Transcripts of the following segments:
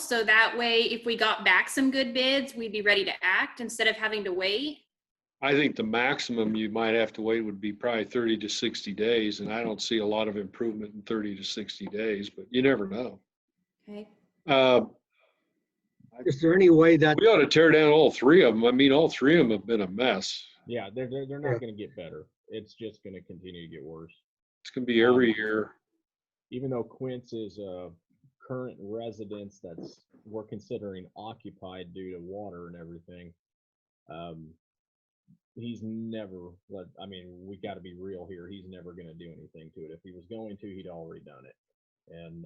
So that way, if we got back some good bids, we'd be ready to act instead of having to wait. I think the maximum you might have to wait would be probably thirty to sixty days, and I don't see a lot of improvement in thirty to sixty days, but you never know. Okay. Uh, Is there any way that, we ought to tear down all three of them. I mean, all three of them have been a mess. Yeah, they're they're, they're Yeah. not going to get better. It's just going to continue to get worse. It's gonna be every year. Even though Quince is a current residence that's we're considering occupied due to water and everything, um, he's never let. I mean, we got to be real here. He's never going to do anything to it. If he was going to, he'd already done it. And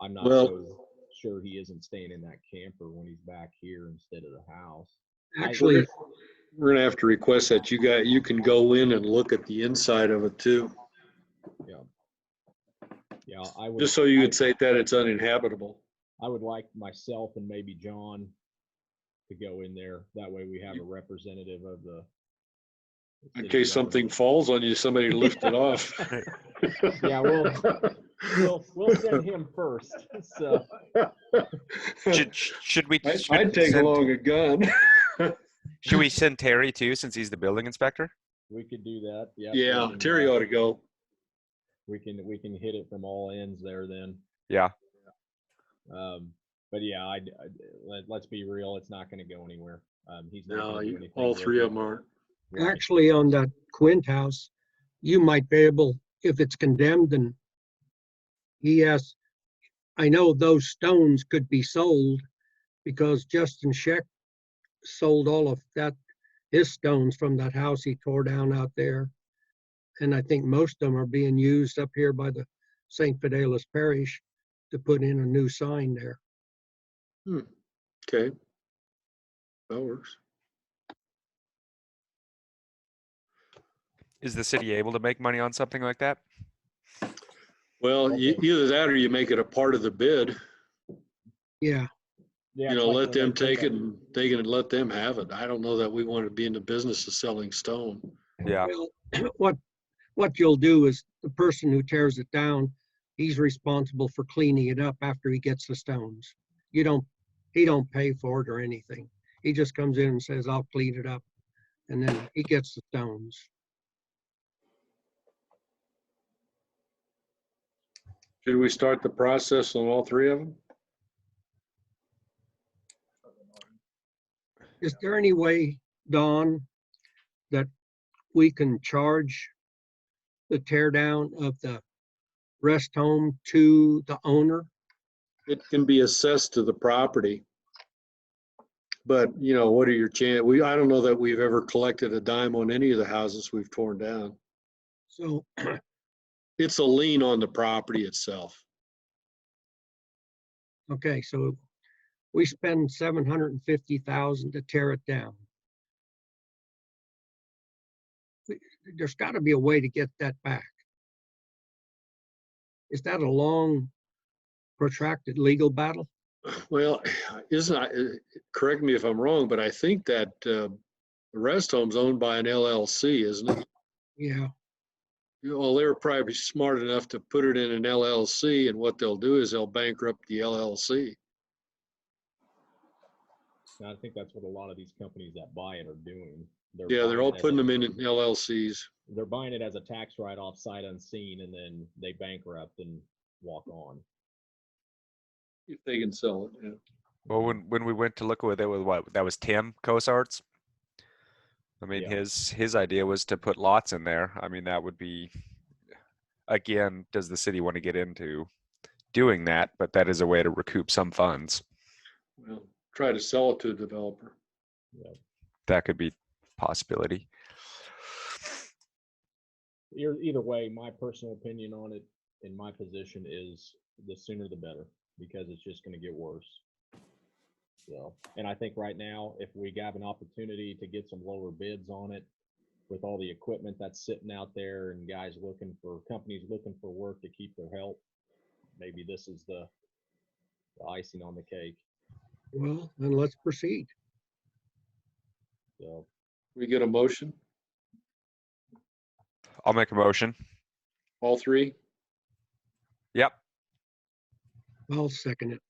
I'm not Well- so sure he isn't staying in that camper when he's back here instead of the house. actually, We're gonna have to request that you got, you can go in and look at the inside of it too, Yeah, I would. just so you I- could say that it's uninhabitable. I would like myself and maybe John to go in there. That way we have a representative of the. In city case something government. falls on you, somebody lift it off. Yeah, we'll, we'll, we'll send him first. So, Should, sh- should we? I- should I'd we take send- along a gun. Should we send Terry too, since he's the building inspector? we could do that. Yeah. we Yeah, can, Terry uh, ought to go. We can, we can hit it from all ends there then. Yeah. Um, but yeah, I, I, let, let's be real. It's not going to go anywhere. Um, he's not. No, gonna do you- anything all with three it. of them aren't. Right. actually on that Quint house, you might be able, if it's condemned and he has, I know those stones could be sold because Justin Scheck sold all of that, his stones from that house he tore down out there. And I think most of them are being used up here by the St. Fidelis Parish to put in a new sign there. Hmm, Okay. That works. Is the city able to make money on something like that? Well, e- either that or you make it a part of the bid, Yeah, Yeah, you it's know, like let when they them put take it that- and they can let them have it. I don't know that we want to be in the business of selling stone. Yeah. Well, what, what you'll do is the person who tears it down, he's responsible for cleaning it up after he gets the stones. You don't, he don't pay for it or anything. He just comes in and says, I'll clean it up. And then he gets the stones. Should we start the process on all three of them? Is there any way, Don, that we can charge the tear down of the rest home to the owner? It can be assessed to the property. But, you know, what are your chan, we, I don't know that we've ever collected a dime on any of the houses we've torn down. So It's a lien on the property itself. Okay, so we spend seven hundred and fifty thousand to tear it down. We- There's gotta be a way to get that back. Is that a long protracted legal battle? Well, isn't, I- uh, correct me if I'm wrong, but I think that uh, the rest home's owned by an LLC, isn't it? Yeah, You know, Well, they're probably smart enough to put it in an LLC, and what they'll do is they'll bankrupt the LLC. And I think that's what a lot of these companies that buy it are doing. Yeah, they're buying all it as putting a- them in LLCs. They're buying it as a tax write-off sight unseen and then they bankrupt and walk on. If they can sell it, yeah. Well, when when we went to look with it with what that was Tim Cosarts. I mean, Yeah. his his idea was to put lots in there. I mean, that would be, again, does the city want to get into doing that? But that is a way to recoup some funds. Well, try to sell it to a developer. That could be possibility. Either, E-, either way, my personal opinion on it in my position is the sooner the better because it's just gonna get worse. So, and I think right now, if we got an opportunity to get some lower bids on it with all the equipment that's sitting out there and guys looking for, companies looking for work to keep their help, maybe this is the the icing on the cake, well, then let's proceed. so. We get a motion, I'll make a motion. all three? Yep. I'll second it.